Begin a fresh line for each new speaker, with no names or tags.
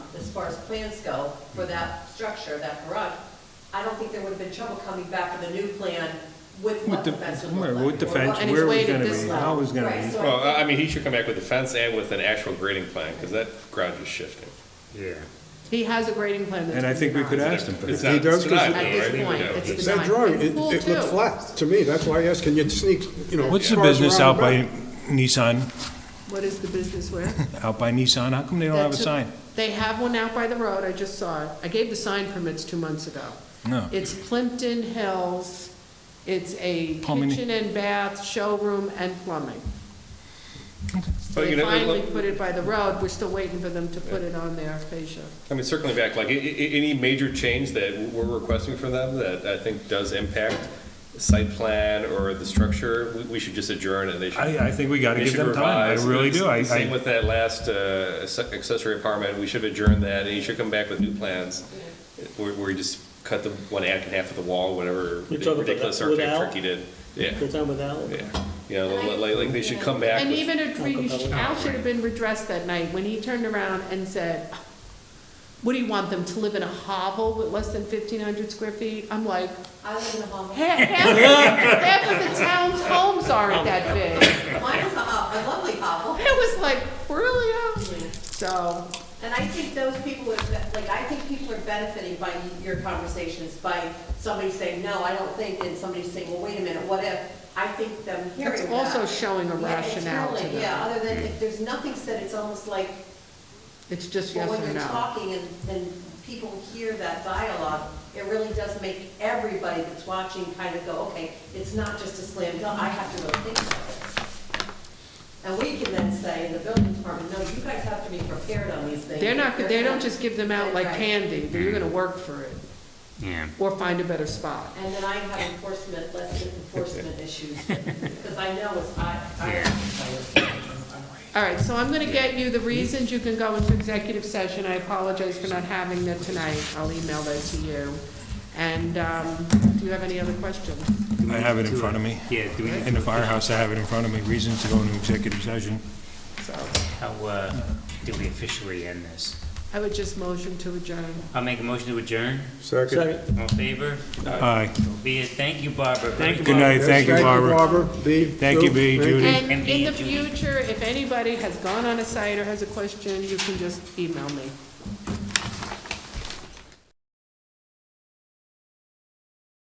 as far as plans go for that structure, that garage, I don't think there would have been trouble coming back with a new plan with what
With the,
the fence would look
where-
like.
with the
or
fence,
what-
and it's
where it was
weighted
gonna
this
be,
low.
how it was gonna
Right,
be.
so
Well, I I
I
mean, he should come back with a fence and with an actual grading plan, because that garage is shifting.
Yeah.
He has a grading plan that's.
And I think we could
designed.
ask him.
It's
He
not,
does
it's
consider-
not, though,
At this
right? We
point,
know.
it's
It's-
That
Design.
drawing,
And
it,
pool
it looked
too.
flat to me, that's why I asked, can you sneak, you know.
What's the
cars
business
around
out
the
by
back?
Nissan,
What is the business where?
out by Nissan? How come they don't have a
That's
sign?
They have one out by the road, I just saw it. I gave the sign permits two months ago.
No.
It's Plimpton Hills, it's a
Plumbing.
kitchen and bath, showroom, and plumbing.
But,
They
you know, it
finally
look-
put it by the road, we're still waiting for them to put it on their fascia.
I mean, circling back, like, i- i- any major change that we're requesting from them that I think does impact site plan or the structure, we- we should just adjourn and they should.
I, I think we gotta
they
give
should
them time, I
revise.
really do, I,
Same
I,
with that last uh, acce- accessory apartment, we should adjourn that, and you should come back with new plans, where, where you just cut the one act in half of the wall, whatever
You're talking about
ridiculous
that without?
architect trick he did. Yeah,
Good time with Al?
yeah, you know, like, like, they should come back
And
with,
even a tree, Al should have been redressed that night, when he turned around and said, what do you want them to live in a hovel with less than fifteen hundred square feet? I'm like,
live in a home,
half, half, half of the town's homes aren't that big.
mine was a, ho- a lovely hovel.
It was like, really? Al? So,
And I think those people would, like, I think people are benefiting by your conversations, by somebody saying, no, I don't think, and somebody saying, well, wait a minute, what if? I think them hearing
It's
that.
also showing a
Yeah, it's
rationale to
really-
them.
Yeah, other than, if there's nothing said, it's almost like,
it's just
well,
yes
when
or
you're
no.
talking and, and people hear that dialogue, it really does make everybody that's watching kind of go, okay, it's not just a slam dunk, I have to really think about it. And we can then say, in the building department, no, you guys have to be prepared on these things.
They're not, they don't
There's
just give them out like
Right.
candy, but you're gonna work for it,
Yeah.
or find a better spot.
And then I have enforcement, less enforcement issues, because I know it's, I, I.
All right, so I'm gonna get you the reasons you can go into executive session, I apologize for not having that tonight, I'll email that to you. And, um, do you have any other questions?
I have it in front of me.
Yeah, do we need
In the firehouse, I have it in front of me, reasons to go into executive session.
So,
how, uh, do we officially end this?
I would just motion to adjourn.
I'll make a motion to adjourn.
Second.
Second.
All in favor?
Aye.
Be it, thank you, Barbara. Thank
Good night, thank you, Barbara.
B.
Thank you,
Sue,
B,
thank you.
Judy.
And in the
Judy.
future, if anybody has gone on a site or has a question, you can just email me.